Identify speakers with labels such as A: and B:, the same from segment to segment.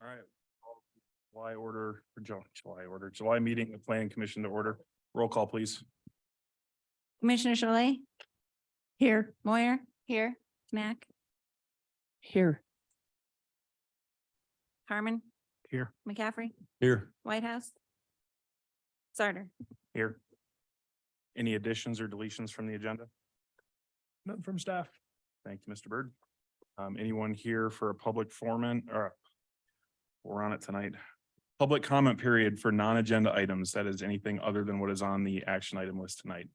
A: right. July order, or Ju- July order, July meeting, the planning commission to order. Roll call, please.
B: Commissioner Shalay? Here. Moyer? Here. Mac?
C: Here.
B: Harmon?
A: Here.
B: McCaffrey?
A: Here.
B: Whitehouse? Sarter?
A: Here. Any additions or deletions from the agenda? Nothing from staff. Thank you, Mr. Bird. Um, anyone here for a public foreman or we're on it tonight. Public comment period for non-agenda items. That is anything other than what is on the action item list tonight.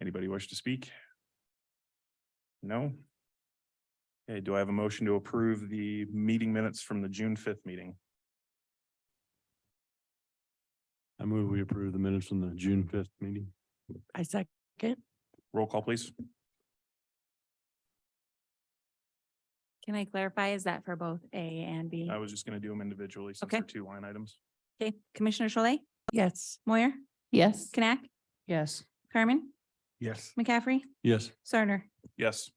A: Anybody wish to speak? No? Okay, do I have a motion to approve the meeting minutes from the June fifth meeting?
D: I move we approve the minutes from the June fifth meeting.
C: I second.
A: Roll call, please.
B: Can I clarify? Is that for both A and B?
A: I was just gonna do them individually since
B: Okay.
A: they're two line items.
B: Okay, Commissioner Shalay?
C: Yes.
B: Moyer?
C: Yes.
B: Knack?
C: Yes.
B: Harmon?
A: Yes.
B: McCaffrey?
D: Yes,
B: Sarter?
A: Yes.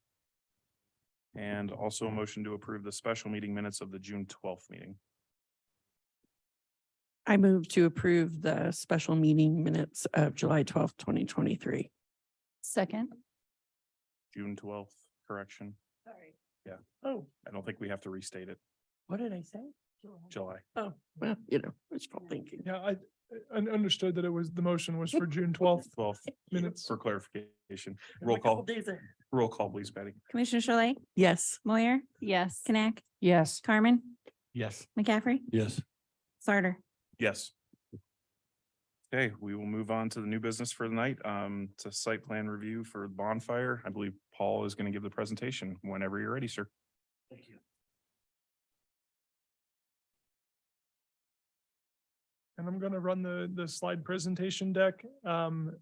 A: And also a motion to approve the special meeting minutes of the June twelfth meeting.
C: I move to approve the special meeting minutes of July twelfth, twenty twenty-three.
B: Second.
A: June twelfth, correction.
C: Sorry.
A: Yeah.
C: Oh,
A: I don't think we have to restate it,
C: what did I say?
A: July.
C: Oh, well, you know, wishful thinking.
E: Yeah, I, I un- understood that it was, the motion was for June twelfth
A: Twelfth
E: minutes.
A: for clarification.
C: I'm
A: Roll
C: like, all
A: call,
C: days are-
A: roll call, please, Betty.
B: Commissioner Shalay?
C: Yes.
B: Moyer? Yes. Knack?
C: Yes.
B: Carmen?
D: yes.
B: McCaffrey?
D: Yes,
B: Sarter?
A: Yes. Okay, we will move on to the new business for the night. Um, it's a site plan review for bonfire. I believe Paul is gonna give the presentation whenever you're ready, sir.
F: Thank you.
E: And I'm gonna run the, the slide presentation deck. Um,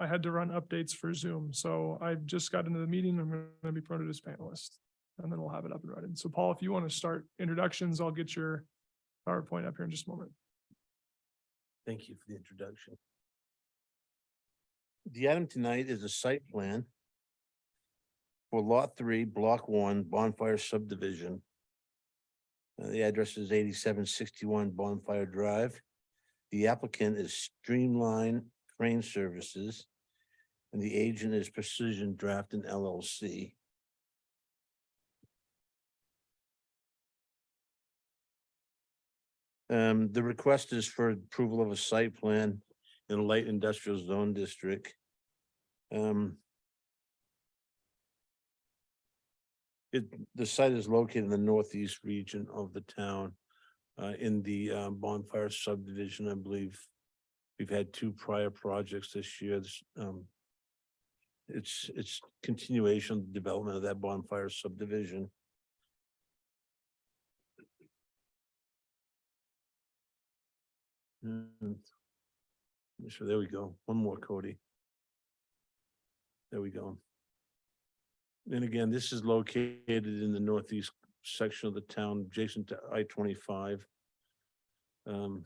E: I had to run updates for Zoom, so I just got into the meeting. I'm gonna be promoted as panelist. And then we'll have it up and running. So Paul, if you want to start introductions, I'll get your PowerPoint up here in just a moment.
F: Thank you for the introduction. The item tonight is a site plan for Lot Three, Block One, Bonfire Subdivision. Uh, The address is eighty-seven sixty-one Bonfire Drive. The applicant is Streamline Crane Services, and the agent is Precision Draft and LLC. Um, the request is for approval of a site plan in a light industrial zone district. Um. It, the site is located in the northeast region of the town, uh, in the uh, bonfire subdivision, I believe. We've had two prior projects this year, It's, um. It's, it's continuation of the development of that bonfire subdivision. Mm. So there we go. One more, Cody. There we go. And again, this is located in the northeast section of the town, adjacent to I twenty-five. Um.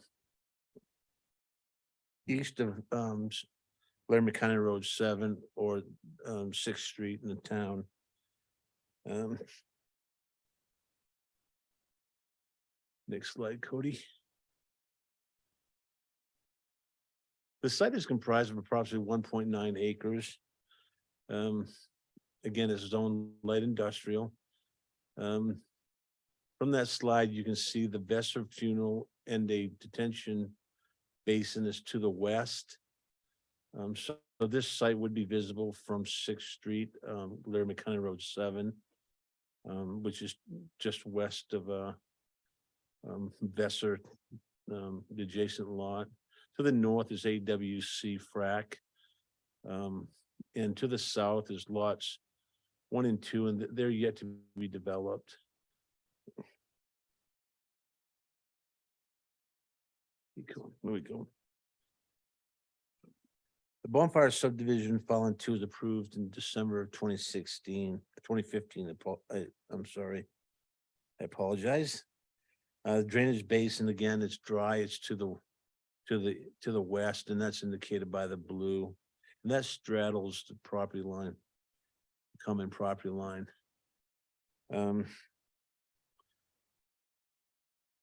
F: East of, um, S- Laramie County Road seven or, um, Sixth Street in the town. Um. Next slide, Cody. The site is comprised of approximately one point nine acres. Um, again, it's zoned light industrial. Um, from that slide, you can see the Vesser funeral and a detention basin is to the west. Um, so this site would be visible from Sixth Street, um, Laramie County Road seven, um, which is just west of, uh, um, Vesser, um, the adjacent lot. To the north is AWC frac. Um, and to the south is lots one and two, and th- they're yet to be developed. Here we go, Here we go. The bonfire subdivision filing two was approved in December of 2016, 2015. apo- I, I'm sorry. I apologize. Uh, drainage basin, again, it's dry, it's to the to the, to the west, and that's indicated by the blue. And that straddles the property line, common property line. Um,